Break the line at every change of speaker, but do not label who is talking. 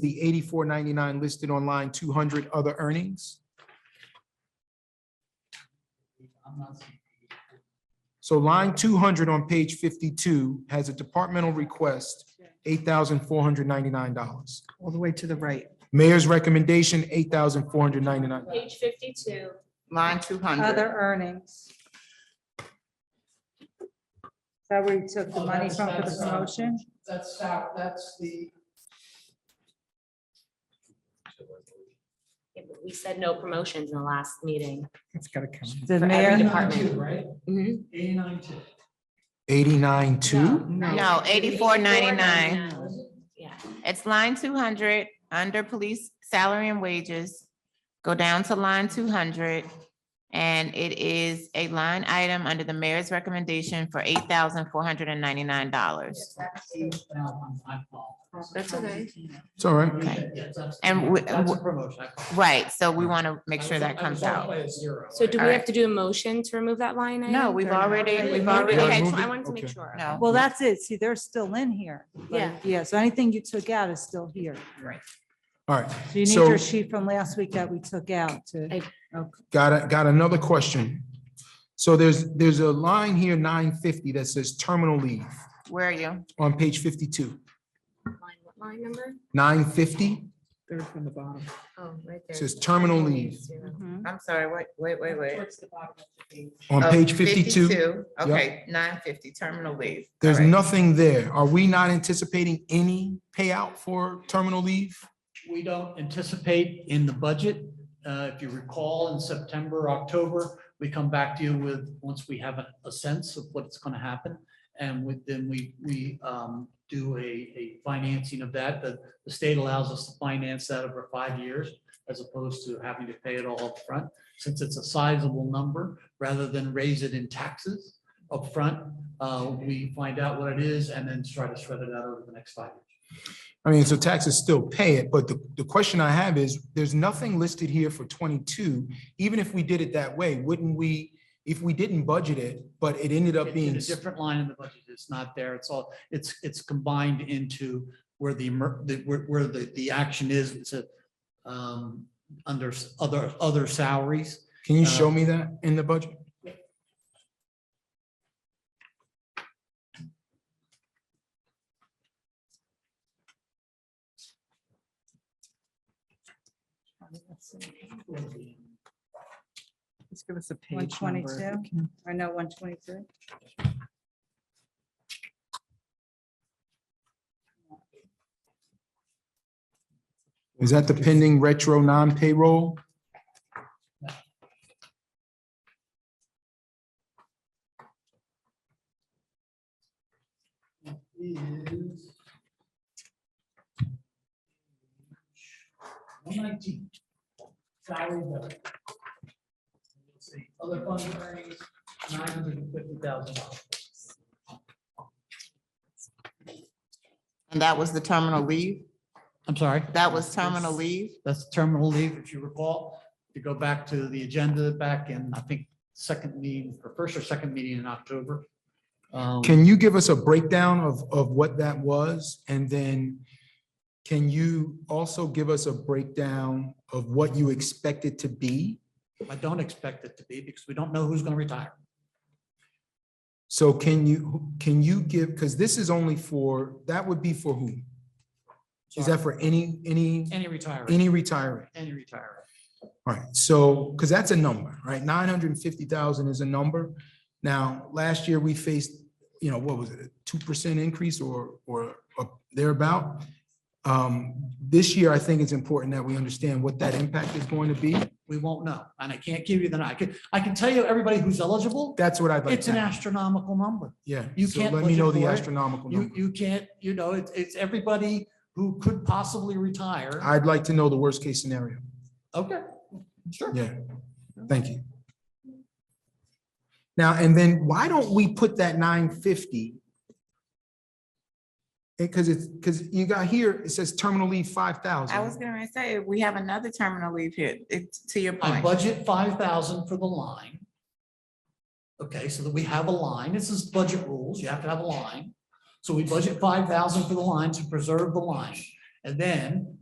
the eighty-four ninety-nine listed on line two hundred other earnings. So line two hundred on page fifty-two has a departmental request, eight thousand four hundred ninety-nine dollars.
all the way to the right.
Mayor's recommendation, eight thousand four hundred ninety-nine.
Page fifty-two,
Line two hundred.
Other earnings. Is that where you took the
Oh,
money
that's-
from for the
that's, um,
promotion?
That's how, that's the,
Yeah, but we said no promotions in the last meeting.
It's gotta count.
The
for every
mayor,
department.
eighty-nine two, right?
Mm-hmm.
Mhm.
Eighty-nine two.
Eighty-nine two?
No, eighty-four ninety-nine.
Yeah,
It's line two hundred, under police salary and wages. Go down to line two hundred. And it is a line item under the mayor's recommendation for eight thousand four hundred and ninety-nine dollars.
That's okay.
It's all right.
Okay.
Yeah, that's-
And we-
That's a promotion. I call it.
Right, so we want to make
I
sure
was-
that
I
comes
was off
out.
by a zero,
so do
right?
we have to do a motion to remove that line item?
No, we've
or
already,
You
we've
wanna
Okay,
already,
so
move
I
it?
wanted to make
Okay.
sure.
no.
well, that's it. See, they're still in here.
Yeah.
Yeah, so anything you took out is still here.
All right,
So you need
So-
your sheet from last week that we took out to,
got, a- got another question. So there's, there's a line here, nine fifty, that says terminal leave
Where are you?
on page fifty-two.
Line- what Line number?
Nine fifty
Third from the bottom.
Oh, right there.
says terminal leave
Zero.
Mm-hmm.
Mhm.
I'm sorry, wait, wait, wait, wait.
Towards the bottom of the page.
on
Oh,
page fifty-two.
52, Okay, nine fifty, terminal leave.
There's
All right.
nothing there. Are we not anticipating any payout for terminal leave?
We don't anticipate in the budget. Uh, If you recall, in September, October, we come back to you with, once we have a- a sense of what's going to happen. And with, then we, we um, do a, a financing of that. The, the state allows us to finance that over five years as opposed to having to pay it all up front, Since it's a sizable number, rather than raise it in taxes up front, uh, we find out what it is and then try to spread it out over the next five years.
I mean, so taxes still pay it, but the, the question I have is, there's nothing listed here for twenty-two. Even if we did it that way, wouldn't we, if we didn't budget it, but it ended up
It's in
being,
a different line in the budget. It's not there. It's all, it's, it's combined into where the, emer- the- where, where the, the action is. It's a, um, under s- other, other salaries.
can you show me that in the budget?
Just give us a
one
page number.
twenty-two, I know, one twenty-two.
Is that the pending retro non-payroll?
Is- One nineteen. Salary benefit. Let's see, Other fund earnings, nine hundred and fifty thousand dollars.
And that was the terminal leave?
I'm sorry?
That was terminal leave?
That's terminal leave, if you recall, to go back to the agenda back in, I think, second meeting, or first or second meeting in October. Um,
Can you give us a breakdown of, of what that was? And then can you also give us a breakdown of what you expect it to be?
I don't expect it to be because we don't know who's going to retire.
So can you, can you give, because this is only for, that would be for who? Is that for any, any,
Any retiree,
any retiree?
any retiree.
All right, so, because that's a number, right? Nine hundred and fifty thousand is a number. Now, last year we faced, you know, what was it, a two percent increase or, or up thereabout? Um, This year, I think it's important that we understand what that impact is going to be.
We won't know. And I can't give you the, I can, I can tell you everybody who's eligible.
That's what I'd like.
It's
to
an
know.
astronomical number.
Yeah.
you
so
can't
Let me know
budget
the
for it.
astronomical
You,
number.
you can't, you know, it's, it's everybody who could possibly retire.
I'd like to know the worst case scenario.
Okay, sure.
Yeah, thank you. Now, and then why don't we put that nine fifty? Because it's, because you got here, it says terminal leave five
I was
thousand.
gonna say, we have another terminal leave here, it's to your
I
point.
budget five thousand for the line. Okay, so that we have a line. This is budget rules. You have to have a line. So we budget five thousand for the line to preserve the line. And then